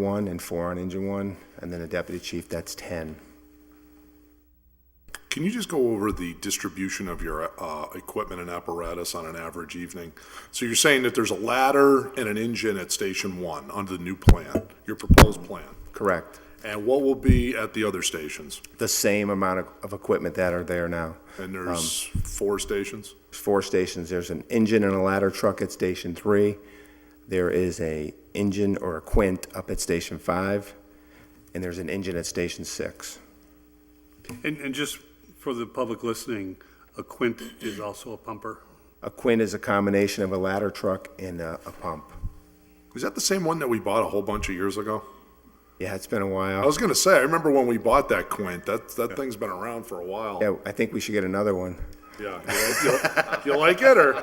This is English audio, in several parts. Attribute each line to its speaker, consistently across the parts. Speaker 1: one and four on engine one, and then a deputy chief, that's 10.
Speaker 2: Can you just go over the distribution of your uh, equipment and apparatus on an average evening? So you're saying that there's a ladder and an engine at Station 1 under the new plan, your proposed plan?
Speaker 1: Correct.
Speaker 2: And what will be at the other stations?
Speaker 1: The same amount of, of equipment that are there now.
Speaker 2: And there's
Speaker 1: Um,
Speaker 2: four stations?
Speaker 1: There's four stations. There's an engine and a ladder truck at Station Three. There is a engine or a quint up at Station Five, and there's an engine at Station Six.
Speaker 3: And, and just for the public listening, a quint is also a pumper.
Speaker 1: A quint is a combination of a ladder truck and a, a pump.
Speaker 2: Is that the same one that we bought a whole bunch of years ago?
Speaker 1: Yeah, it's been a
Speaker 2: I
Speaker 1: while.
Speaker 2: was gonna say, I remember when we bought that Quint, that, that thing's been around for a while.
Speaker 1: Yeah, I think we should get another one.
Speaker 2: Yeah. You like- You like it, or?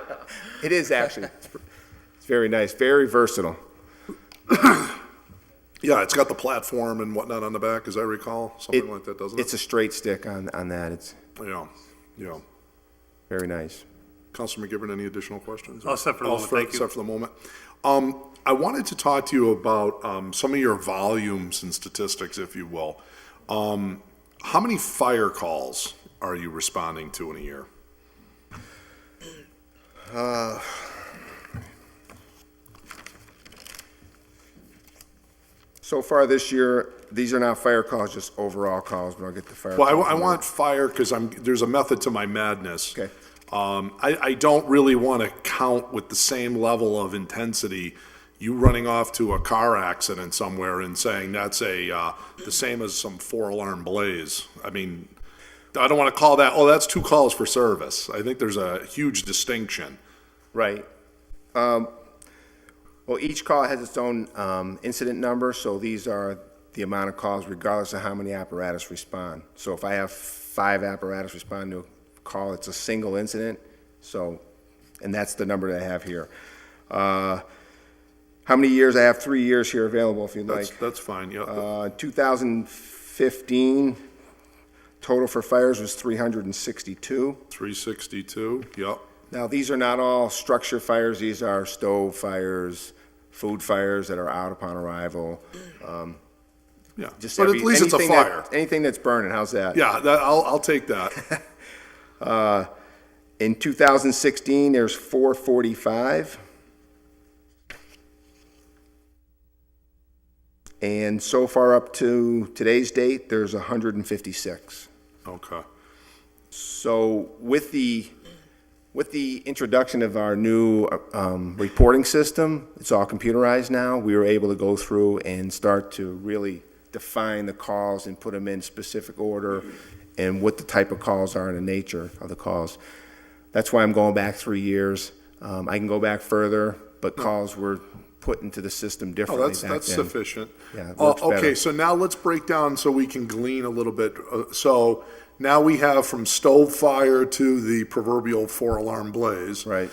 Speaker 1: It is actually. It's very nice, very versatile.
Speaker 2: Yeah, it's got the platform and whatnot on the back, as I recall, something like that, doesn't
Speaker 1: It's a
Speaker 2: it?
Speaker 1: straight stick on, on that. It's
Speaker 2: Yeah, yeah.
Speaker 1: very nice.
Speaker 2: Councilman McGivern, any additional questions?
Speaker 3: All set Oh, for the
Speaker 2: All
Speaker 3: moment, thank you.
Speaker 2: Except for the moment. Um, I wanted to talk to you about, um, some of your volumes and statistics, if you will. Um, how many fire calls are you responding to in a year?
Speaker 1: So far this year, these are not fire calls, just overall calls, but I'll get the fire.
Speaker 2: Well, I wa-
Speaker 1: calls
Speaker 2: I,
Speaker 1: in a
Speaker 2: want fire because I'm, there's a method to my madness.
Speaker 1: Okay.
Speaker 2: Um, I, I don't really want to count with the same level of intensity you running off to a car accident somewhere and saying that's a, uh, the same as some four alarm blaze. I mean, I don't want to call that, oh, that's two calls for service. I think there's a huge distinction.
Speaker 1: Right. Um, well, each call has its own, um, incident number, so these are the amount of calls regardless of how many apparatus respond. So if I have five apparatus respond to a call, it's a single incident, so, and that's the number that I have here. Uh, how many years? I have three years here available if you'd
Speaker 2: That's,
Speaker 1: like.
Speaker 2: that's fine, yeah.
Speaker 1: Uh, 2015, total for fires was 362.
Speaker 2: 362, yep.
Speaker 1: Now, these are not all structure fires, these are stove fires, food fires that are out upon arrival. Uh,
Speaker 2: Yeah,
Speaker 1: Just
Speaker 2: but at
Speaker 1: every-
Speaker 2: least it's a
Speaker 1: anything that-
Speaker 2: fire.
Speaker 1: Anything that's burning, how's that?
Speaker 2: Yeah, that, I'll, I'll take that.
Speaker 1: In 2016, there's 445. And so far up to today's date, there's 156.
Speaker 2: Okay.
Speaker 1: So with the, with the introduction of our new um, reporting system, it's all computerized now, we were able to go through and start to really define the calls and put them in specific order and what the type of calls are and the nature of the calls. That's why I'm going back three years. Um, I can go back further, but calls were put into the system
Speaker 2: Hmm. Oh,
Speaker 1: differently back
Speaker 2: that's,
Speaker 1: then.
Speaker 2: that's sufficient.
Speaker 1: Yeah, it
Speaker 2: Uh,
Speaker 1: works better.
Speaker 2: Okay, so now let's break down so we can glean a little bit. Uh, So now we have from stove fire to the proverbial four-alarm blaze.
Speaker 1: Right.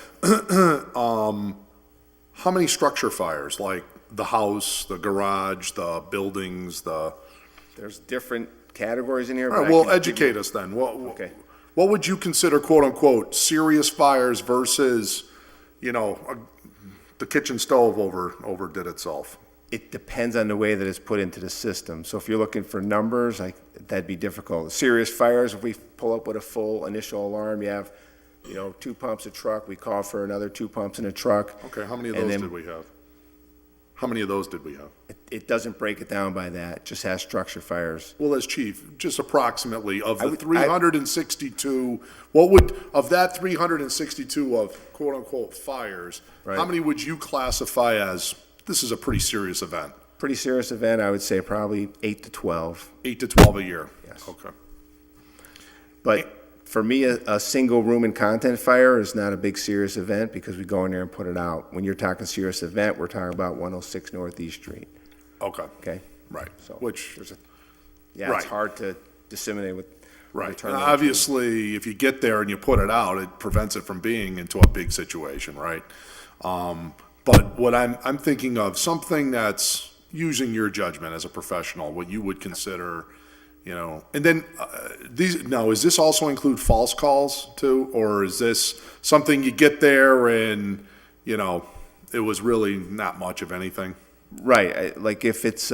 Speaker 2: How many structure fires, like the house, the garage, the buildings, the,
Speaker 1: There's different categories in here.
Speaker 2: all
Speaker 1: but
Speaker 2: right,
Speaker 1: I
Speaker 2: well,
Speaker 1: can-
Speaker 2: educate us then. What,
Speaker 1: Okay.
Speaker 2: what would you consider quote-unquote serious fires versus, you know, a- the kitchen stove over, overdid itself?
Speaker 1: It depends on the way that it's put into the system. So if you're looking for numbers, like, that'd be difficult. Serious fires, if we pull up with a full initial alarm, you have, you know, two pumps a truck, we call for another two pumps in a truck.
Speaker 2: Okay, how many of
Speaker 1: And
Speaker 2: those
Speaker 1: then
Speaker 2: did we have? How many of those did we have?
Speaker 1: It, it doesn't break it down by that, it just has structure fires.
Speaker 2: Well, as chief, just approximately of the
Speaker 1: would- I-
Speaker 2: 362, what would, of that 362 of quote-unquote fires, how
Speaker 1: Right.
Speaker 2: many would you classify as, this is a pretty serious event,
Speaker 1: Pretty serious event, I would say probably eight to 12.
Speaker 2: eight to 12 a year?
Speaker 1: Yes.
Speaker 2: Okay.
Speaker 1: But for me, a, a single room and content fire is not a big serious event because we go in there and put it out. When you're talking serious event, we're talking about 106 Northeast Street,
Speaker 2: Okay.
Speaker 1: okay?
Speaker 2: Right,
Speaker 1: So
Speaker 2: which,
Speaker 1: there's a- Yeah,
Speaker 2: Right.
Speaker 1: it's hard to disseminate with.
Speaker 2: right.
Speaker 1: return
Speaker 2: And
Speaker 1: that.
Speaker 2: Obviously, if you get there and you put it out, it prevents it from being into a big situation, right? Um, But what I'm, I'm thinking of, something that's using your judgment as a professional, what you would consider, you know, and then uh, these, now, is this also include false calls too? Or is this something you get there and, you know, it was really not much of anything?
Speaker 1: Right, I- like if it's,